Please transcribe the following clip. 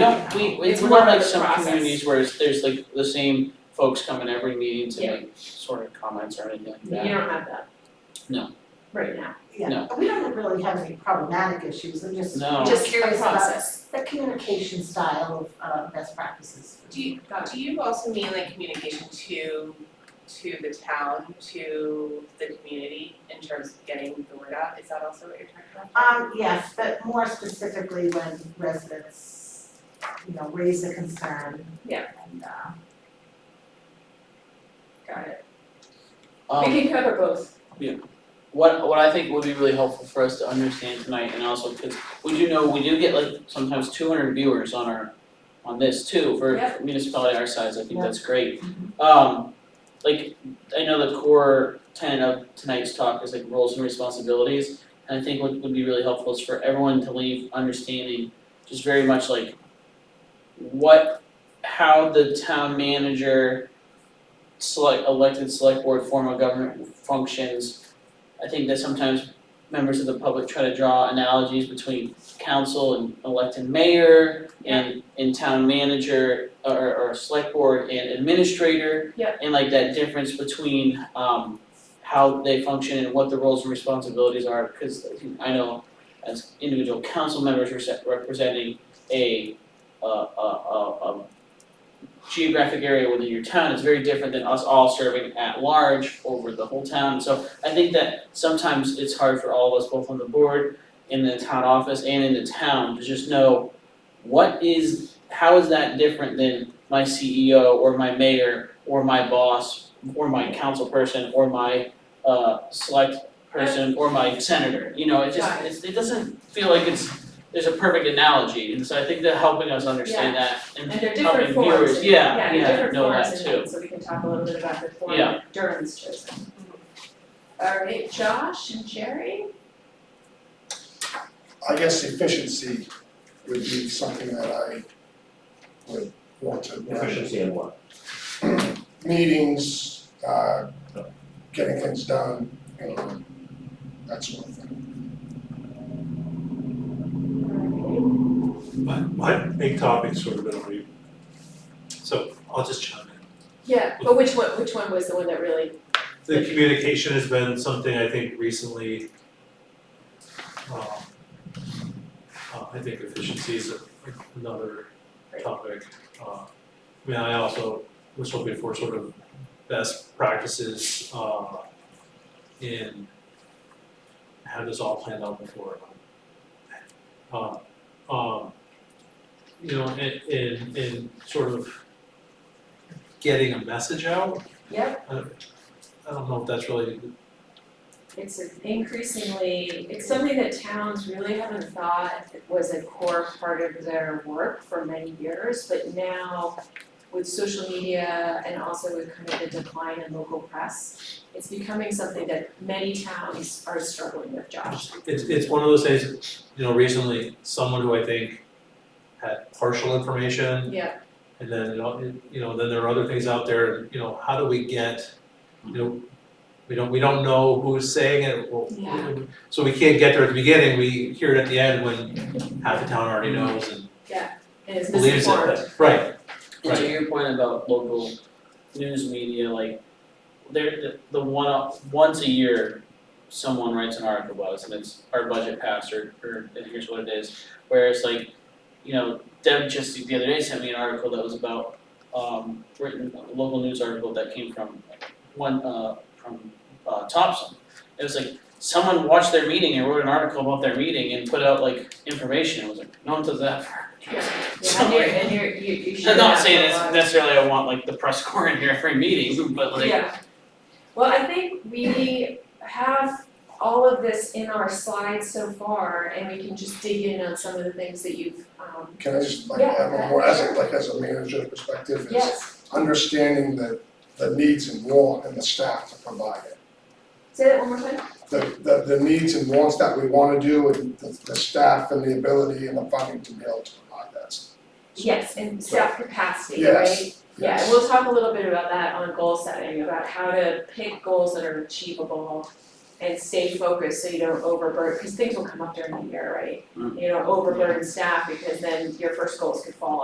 No, we, it's It's more more like of a some process. communities where it's, there's like the same folks come in every meeting to Yeah. make sort of comments or anything like You that. don't have that. No. Right now. No. Yeah, we don't really have any problematic issues, I'm just No. just curious about process. the communication style of uh best practices. Do you, do you also mean like communication to, to the town, to the community in terms of getting the word out? Is that also what you're talking about? Um, yes, but more specifically when residents, you know, raise a concern. Yeah. And uh, Got it. Um, We can cover both. what, what I think would be really helpful for us to understand tonight and also because we do know, we do get like sometimes two hundred viewers on our, on this too, for Yeah. municipality our size, I think Yeah. that's great. Um, like, I know the core tenet of tonight's talk is like roles and responsibilities. And I think what would be really helpful is for everyone to leave understanding just very much like what, how the town manager select, elected select board form of government functions. I think that sometimes members of the public try to draw analogies between council and elected mayor and and town manager or or select board and administrator. Yeah. And like that difference between um how they function and what the roles and responsibilities are, because I know as individual council members rese- representing a uh a a a geographic area within your town is very different than us all serving at large over the whole town. So I think that sometimes it's hard for all of us, both on the board, in the town office and in the town, to just know what is, how is that different than my CEO or my mayor or my boss or my council person or my uh select person or my senator, you know, it just, Got it. it's, it doesn't feel like it's, there's a perfect analogy, and so I think that helping us understand that and And they're helping different forms. viewers, and- yeah, they're yeah, different know forms that and too. things, so we can talk a little bit about the form Yeah. Durham's chosen. All right, Josh and Jerry? I guess efficiency would be something that I would want to. learn. Efficiency in what? Meetings, uh, getting things done, you know, that sort of thing. My, my big topic's sort of been already, so I'll just chime in. Yeah, but which one, which one was the one that really, The communication has been something I think recently, um, uh, I think efficiency is a- another topic. Uh, I mean, I also was hoping for sort of best practices, uh, in how this all planned out before. Uh, um, you know, in, in, in sort of getting a message out, yep, I don't know if that's really, it's increasingly, it's something that towns really haven't thought was a core part of their work for many years, but now with social media and also with kind of the decline in local press, it's becoming something that many towns are struggling with, Josh. it's, it's one of those things, you know, recently, someone who I think had partial information, Yeah, and then, you know, it- you know, then there are other things out there, you know, how do we get, you know, we don't, we don't know who's saying it, well, Yeah. so we can't get there at the beginning, we hear it at the end when half the town already knows and and it's believes it, misinformed. but- right, And to Right. your point about local news media, like, there, the, the one, once a year, someone writes an article about us, and it's our budget passed, or, or, and here's what it is. Whereas like, you know, Deb just the other day sent me an article that was about, um, written, a local news article that came from one, uh, from, uh, Thompson. It was like, someone watched their meeting and wrote an article about their meeting and put out like information, it was like, no one does that for our meetings. Yeah, and you're, and you're, you, you should I'm have not saying a lot it's of- necessarily I want like the press corps in here every meeting, but like, Yeah. Well, I think we have all of this in our slides so far, and we can just dig in on some of the things that you've, um, Can I just like Yeah, have a more, as a, sure. like as a manager's perspective, is yes, understanding the, the needs and want and the staff to provide it. say that one more time. The, the, the needs and wants that we wanna do and the, the staff and the ability and the funding to be able to provide that. Yes, and staff capacity, right? Yes, Yeah, yes. and we'll talk a little bit about that on goal setting, about how to pick goals that are achievable and stay focused so you don't overburden, because things will come up during the year, right? Mm. You don't overburden staff because then your first goals could fall